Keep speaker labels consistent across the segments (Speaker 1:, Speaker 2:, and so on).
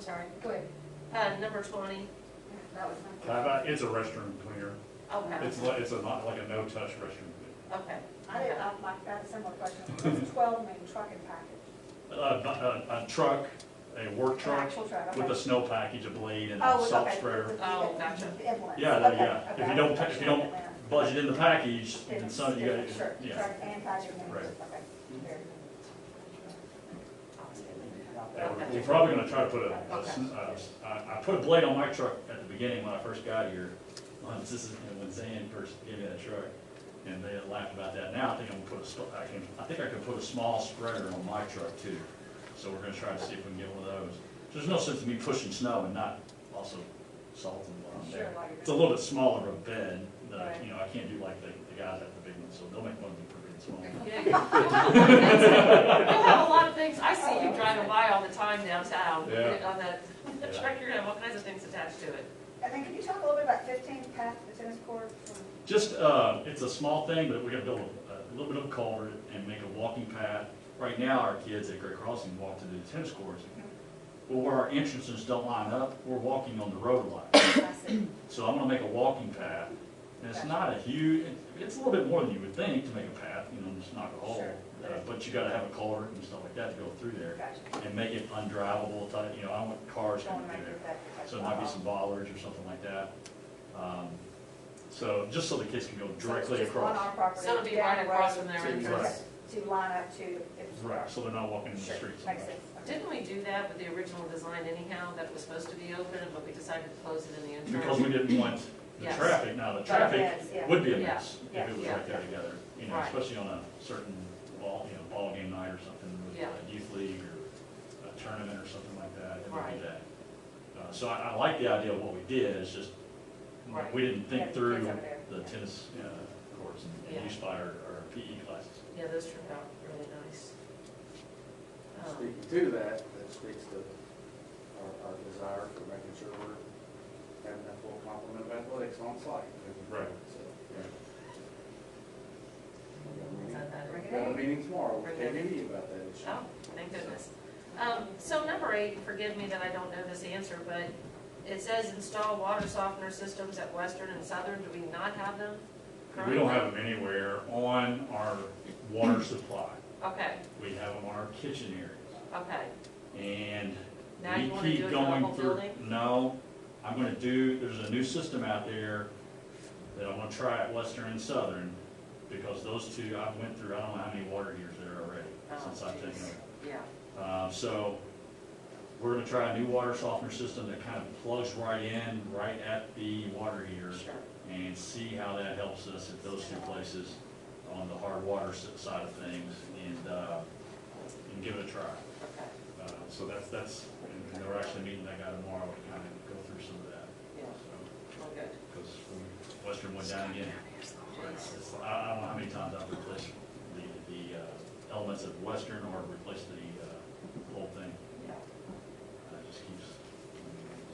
Speaker 1: sorry.
Speaker 2: Go ahead.
Speaker 1: Uh, number twenty,
Speaker 2: That was
Speaker 3: How
Speaker 2: my.
Speaker 3: about, it's a restroom cleaner.
Speaker 1: okay,
Speaker 3: It's like, it's a, not like a no-touch restroom cleaner.
Speaker 1: okay.
Speaker 2: I uh, did, I, my, that's a similar question. It's Twelve main trucking package.
Speaker 3: A, bu- a, a truck, a work
Speaker 2: An
Speaker 3: truck
Speaker 2: actual truck, okay.
Speaker 3: with a snow package, a blade and
Speaker 2: Oh,
Speaker 3: a salt
Speaker 2: okay.
Speaker 3: sprayer.
Speaker 1: Oh, gotcha.
Speaker 2: Inlets.
Speaker 3: Yeah, that-
Speaker 2: Okay,
Speaker 3: yeah. If you
Speaker 2: okay.
Speaker 3: don't pa- if you don't- Budget in the package, and some, you
Speaker 2: Different,
Speaker 3: gotta,
Speaker 2: sure.
Speaker 3: yeah.
Speaker 2: Truck and package. and-
Speaker 3: Right. Mm-hmm.
Speaker 2: okay. Very good.
Speaker 3: And we're- We're probably gonna try to put a, a s-
Speaker 1: Okay.
Speaker 3: uh, s- I, I put a blade on my truck at the beginning when I first got here. Once this is, and when Zan first gave me that truck, and they laughed about that. Now I think I'm gonna put a, sto- I can, I think I could put a small spreader on my truck too. So we're gonna try to see if we can get one of those. There's no sense in me pushing snow and not also salting while I'm
Speaker 2: Sure,
Speaker 3: there.
Speaker 2: while you're-
Speaker 3: It's a little bit smaller of a bed, that I-
Speaker 2: Right.
Speaker 3: you know, I can't do like the, the guys at the big ones, so they'll make one of them pretty small.
Speaker 1: Yeah, You'll have a lot of things, I see you driving by all the time downtown, on
Speaker 3: Yeah.
Speaker 1: that, on that
Speaker 3: Yeah.
Speaker 1: truck, you're gonna have all kinds of things attached to it.
Speaker 2: And then could you talk a little bit about fifteen past the tennis court? from-
Speaker 3: Just, uh, it's a small thing, but we're gonna build a, a little bit of a culvert and make a walking path. Right now, our kids at Great Crossing walk to the tennis courts. Well, where our entrances don't line up, we're walking on the road a lot.
Speaker 2: I see.
Speaker 3: So I'm gonna make a walking path. And it's not a huge, it's a little bit more than you would think to make a path, you know, just knock a hole.
Speaker 2: Sure.
Speaker 3: Uh, But you gotta have a culvert and stuff like that to go through there
Speaker 2: Gotcha.
Speaker 3: and make it undrivable, type, you know, I don't want cars
Speaker 2: Don't
Speaker 3: coming
Speaker 2: wanna
Speaker 3: through
Speaker 2: make
Speaker 3: there.
Speaker 2: it that-
Speaker 3: So it might be some bollards or something like that. Um, So, just so the kids can go
Speaker 2: So it's
Speaker 3: directly
Speaker 2: just on our
Speaker 3: across.
Speaker 2: property,
Speaker 1: So it'll be
Speaker 2: down
Speaker 1: right
Speaker 2: the
Speaker 1: across
Speaker 2: road,
Speaker 1: from their
Speaker 3: Right.
Speaker 1: entrance.
Speaker 2: To line up to. if-
Speaker 3: Right, so they're not walking in the
Speaker 2: Sure,
Speaker 3: streets.
Speaker 2: Makes sense. Okay.
Speaker 1: Didn't we do that with the original design anyhow, that it was supposed to be open, but we decided to close it in the interim?
Speaker 3: Because we didn't want the
Speaker 1: Yes.
Speaker 3: traffic, now the
Speaker 2: But
Speaker 3: traffic
Speaker 2: yes, yeah.
Speaker 3: would be a
Speaker 1: Yeah,
Speaker 3: mess
Speaker 2: yeah,
Speaker 3: if it was
Speaker 1: yeah.
Speaker 3: right there together. You know,
Speaker 1: Right.
Speaker 3: especially on a certain ball, you know, ball game night or something with
Speaker 1: Yeah.
Speaker 3: a youth league or a tournament or something like that. it would be
Speaker 1: Right.
Speaker 3: that. Uh, So I, I like the idea of what we did, it's just,
Speaker 1: Right.
Speaker 3: we didn't
Speaker 2: Yeah,
Speaker 3: think
Speaker 2: kids
Speaker 3: through
Speaker 2: over there.
Speaker 3: the tennis uh, courts and-
Speaker 1: Yeah.
Speaker 3: and used by our, our PE E classes.
Speaker 1: Yeah, those turned out really nice. Um,
Speaker 4: Speaking to that, that speaks to our, our desire for making sure we're having that full complement of athletics on site.
Speaker 3: Right.
Speaker 4: So, yeah. We got a
Speaker 1: is
Speaker 4: meeting-
Speaker 1: that better?
Speaker 2: Bring it
Speaker 4: we Got a
Speaker 2: in.
Speaker 4: meeting tomorrow, we're
Speaker 1: Bring it in.
Speaker 4: taking you about that issue.
Speaker 1: Oh, thank goodness. Um, so number eight, forgive me that I don't know this answer, but it says install water softener systems at Western and Southern. Do we not have them
Speaker 3: We
Speaker 1: currently?
Speaker 3: don't have them anywhere on our water supply.
Speaker 1: Okay,
Speaker 3: We have them on our kitchen areas.
Speaker 1: okay.
Speaker 3: And
Speaker 1: Now
Speaker 3: we
Speaker 1: you wanna do
Speaker 3: keep
Speaker 1: it for the
Speaker 3: going
Speaker 1: whole
Speaker 3: through.
Speaker 1: building?
Speaker 3: No, I'm gonna do, there's a new system out there that I wanna try at Western and Southern, because those two, I went through, I don't know how many water years there already,
Speaker 1: Oh,
Speaker 3: since I've taken
Speaker 1: geez.
Speaker 3: over.
Speaker 1: Yeah,
Speaker 3: Uh, so, we're gonna try a new water softener system that kind of plugs right in, right at the water heater.
Speaker 1: sure.
Speaker 3: and see how that helps us at those two places on the hard water s- side of things and, uh, and give it a try.
Speaker 1: Okay,
Speaker 3: Uh, so that's, that's, and- and we're actually meeting that guy tomorrow to kind of go through some of that.
Speaker 1: yeah,
Speaker 3: So,
Speaker 1: well, good.
Speaker 3: cause when Western went down again, it's, it's, I, I don't know how many times I've replaced the, the, uh, elements of Western or replaced the, uh, whole thing.
Speaker 1: Yeah.
Speaker 3: Uh, It just keeps.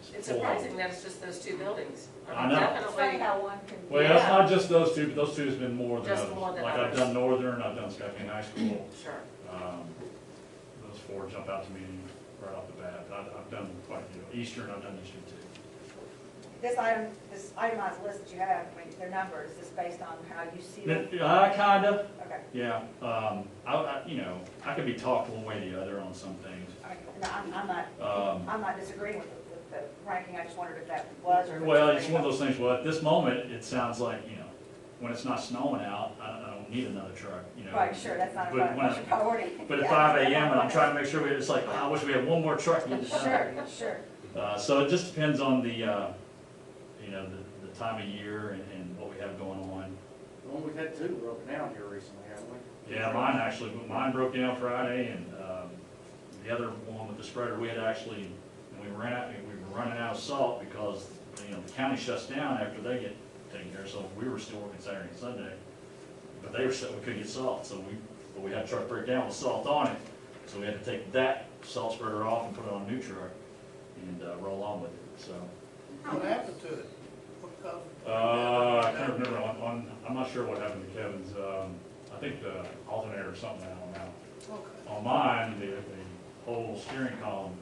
Speaker 3: just
Speaker 1: It's
Speaker 3: full.
Speaker 1: surprising that it's just those two buildings.
Speaker 3: I know.
Speaker 2: It's funny
Speaker 1: Definitely,
Speaker 2: how one can.
Speaker 3: Well,
Speaker 1: Yeah.
Speaker 3: it's not just those two, but those two has been more than
Speaker 1: Just
Speaker 3: others.
Speaker 1: more than
Speaker 3: Like I've
Speaker 1: others.
Speaker 3: done Northern, I've done Scottsdale High School.
Speaker 1: sure.
Speaker 3: Um, Those four jump out to me right off the bat. I've, I've done quite a few. Eastern, I've done Eastern too.
Speaker 2: This item, this itemized list that you have, I mean, their numbers, is based on how you see them?
Speaker 3: N- I kinda,
Speaker 2: Okay,
Speaker 3: yeah. Um, I, I, you know, I could be talked one way or the other on some things.
Speaker 2: I mean, no, I'm, I'm not,
Speaker 3: Um,
Speaker 2: I'm not disagreeing with, with the ranking, I just wondered if that was or.
Speaker 3: Well, it's one of those things, well, at this moment, it sounds like, you know, when it's not snowing out, I, I don't need another truck, you know.
Speaker 2: Right, sure, that's not a
Speaker 3: But when I-
Speaker 2: pri- priority.
Speaker 3: But at
Speaker 2: Yeah,
Speaker 3: five
Speaker 2: that's
Speaker 3: AM
Speaker 2: not
Speaker 3: and I'm
Speaker 2: one.
Speaker 3: trying to make sure, we it's like, "Ah, I wish we had one more truck. getting done."
Speaker 2: Sure, sure,
Speaker 3: Uh, so it just depends on the, uh, you know, the, the time of year and, and what we have going on.
Speaker 4: Well, we've had two broken down here recently, haven't we?
Speaker 3: Yeah, mine actually, mine broke down Friday and, um, the other one with the spreader, we had actually, we ran out, we were running out of salt because, you know, the county shuts down after they get taken care of, so we were still working Saturday and Sunday. But they were still, we couldn't get salt, so we, but we had a truck break down with salt on it, so we had to take that salt spreader off and put it on a new truck and, uh, roll on with it, so.
Speaker 5: What happened to it? What caused it?
Speaker 3: Uh, I can't remember, on, on, I'm not sure what happened to Kevin's, um, I think the alternator or something, I don't know.
Speaker 5: Okay.
Speaker 3: On mine, the, the whole steering column